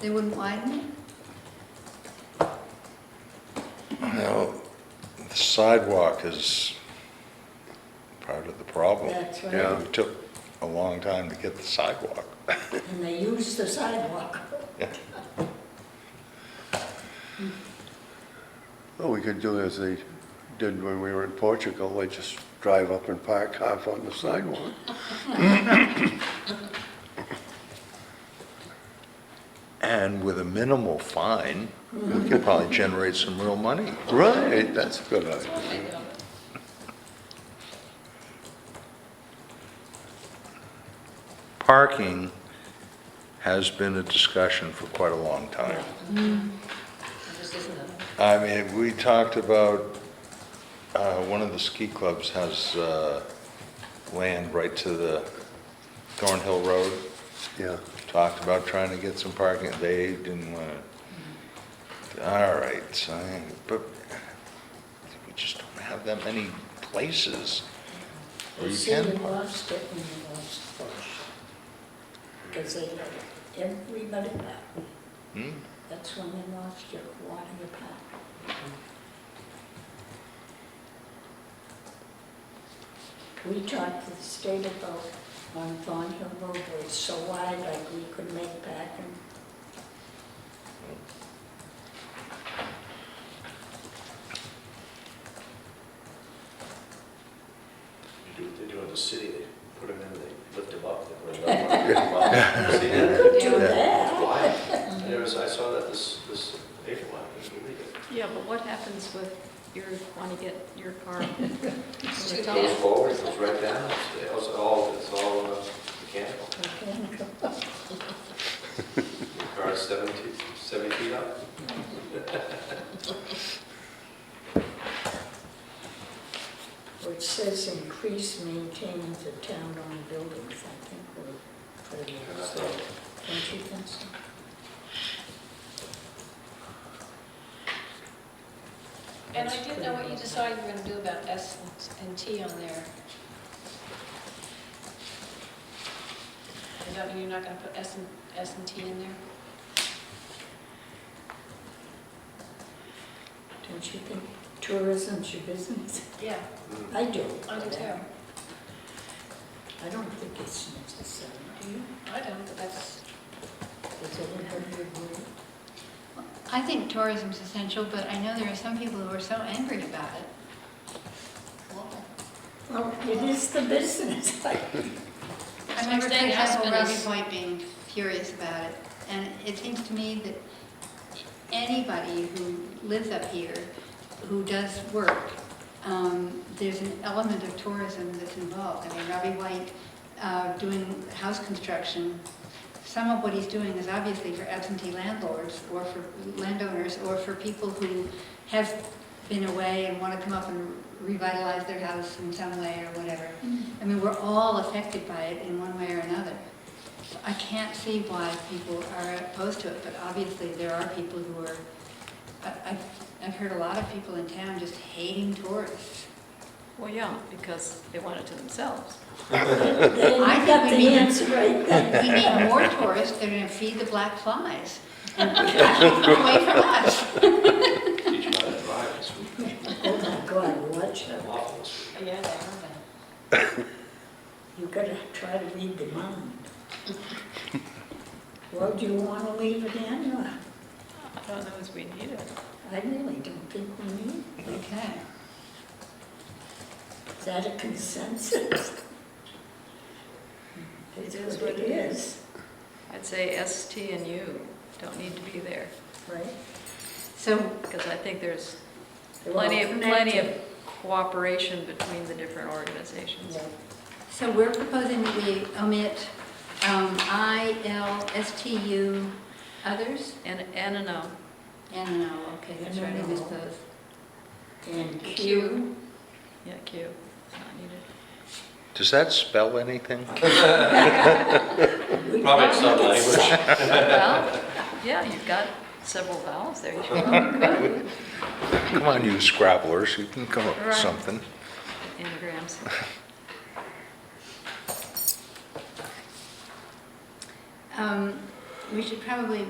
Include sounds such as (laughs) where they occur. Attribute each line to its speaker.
Speaker 1: They wouldn't widen it?
Speaker 2: Now, the sidewalk is part of the problem.
Speaker 3: That's right.
Speaker 2: Yeah, It took a long time to get the sidewalk.
Speaker 3: and they use the sidewalk.
Speaker 2: Yeah.
Speaker 4: Well, we could do as they did when we were in Portugal, they just drive up and park half on the sidewalk.
Speaker 2: And with a minimal fine, we could probably generate some real money.
Speaker 4: Right, that's a good idea.
Speaker 2: Parking has been a discussion for quite a long time.
Speaker 3: Mm.
Speaker 2: I mean, we talked about, uh, one of the ski clubs has, uh, land right to the Thornhill Road.
Speaker 4: Yeah,
Speaker 2: Talked about trying to get some parking, they didn't want to. All right, so, I- but we just don't have that many places where
Speaker 3: The
Speaker 2: you
Speaker 3: city
Speaker 2: can park.
Speaker 3: loves getting the most push. Because they let everybody back.
Speaker 2: Hmm?
Speaker 3: That's when they lost your water your power. We talked to the state about on Thornhill Road, where it's so wide, like we could make packing.
Speaker 5: They do- They do in the city, they put them in, they lift them up, they put them up. lift 'em up.
Speaker 3: (laughs)
Speaker 5: See that?
Speaker 3: Do that.
Speaker 5: It's wild. I never, saw- I saw that this, this April, I couldn't believe it.
Speaker 6: Yeah, but what happens with your, want to get your
Speaker 3: (laughs)
Speaker 6: car?
Speaker 5: It goes forward, it goes right down, it's it's all, it's all uh, mechanical.
Speaker 3: Mechanical.
Speaker 5: The Car is 70 70 feet up.
Speaker 3: Which says increase maintaining the town-owned buildings, I think we're pretty well set. Don't you think so?
Speaker 7: And I didn't know what you decided you were gonna do about S and T on there. Does that mean you're not gonna put S and, S and T in there?
Speaker 3: Don't you think tourism's your business?
Speaker 7: Yeah,
Speaker 5: Mm.
Speaker 3: I do.
Speaker 7: I do too.
Speaker 3: I don't think it's necessary, do you?
Speaker 7: I don't, but that's,
Speaker 3: Does everybody agree?
Speaker 1: I think tourism's essential, but I know there are some people who are so angry about it.
Speaker 3: Well, Oh, it is the (laughs) business.
Speaker 1: I remember
Speaker 7: That's what I'm saying,
Speaker 1: for example,
Speaker 7: husband
Speaker 1: Rocky
Speaker 7: is-
Speaker 1: Point being furious about it, and it seems to me that anybody who lives up here, who does work, um, there's an element of tourism that's involved. I mean, Robbie White uh, doing house construction, some of what he's doing is obviously for absentee landlords, or for landowners, or for people who have been away and want to come up and revitalize their house in some way or whatever. I mean, we're all affected by it in one way or another. So I can't see why people are opposed to it, but obviously there are people who are, I- I've, I've heard a lot of people in town just hating tourists.
Speaker 6: Well, yeah, because they want it to themselves.
Speaker 1: I
Speaker 3: I
Speaker 1: think
Speaker 3: got
Speaker 1: we
Speaker 3: the
Speaker 1: need-
Speaker 3: answer (laughs) right there.
Speaker 1: We need more tourists, they're gonna feed the black flies and (laughs) keep them away from us.
Speaker 5: Teach you how to drive this week,
Speaker 3: Oh my God, watch out.
Speaker 5: lawful this week.
Speaker 7: yeah, I don't know.
Speaker 3: You gotta try to read the mind. Well, do you wanna leave it in or?
Speaker 6: I don't know if we need it.
Speaker 3: I really don't think we need.
Speaker 1: Okay.
Speaker 3: Is that a consensus? It is what it is,
Speaker 6: I'd say S, T, and U don't need to be there,
Speaker 3: right?
Speaker 1: So,
Speaker 6: because I think there's
Speaker 3: They're
Speaker 6: plenty of,
Speaker 3: all
Speaker 6: plenty of
Speaker 3: connected.
Speaker 6: cooperation between the different organizations.
Speaker 3: Yeah.
Speaker 1: so we're proposing that we omit um, I, L, S, T, U, others?
Speaker 6: And, and an O.
Speaker 1: And, oh, okay, that's right, I missed those.
Speaker 3: And Q,
Speaker 6: Yeah, Q. It's not needed.
Speaker 2: Does that spell anything?
Speaker 3: we
Speaker 5: Probably in some
Speaker 3: probably-
Speaker 5: language.
Speaker 6: Well, yeah, you've got several vowels there. You should probably put
Speaker 2: Come on, you scrabblers, you can come up with
Speaker 6: Right.
Speaker 2: something.
Speaker 6: Engrams.
Speaker 1: Um, We should probably